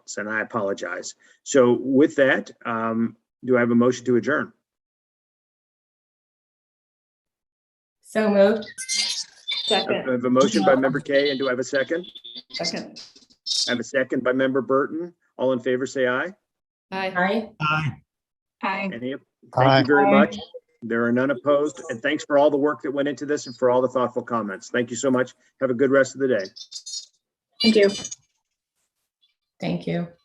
minutes, and I apologize. So with that, um, do I have a motion to adjourn? So moved. I Second, have a motion by member Kay, and do I have a second? second. I have a second by member Burton. All in favor, say aye. Aye. Aye. Aye. Any, thank you very much. There are none opposed, and thanks for all the work that went into this and for all the thoughtful comments. Thank you so much. Have a good rest of the day. Thank you. Thank you.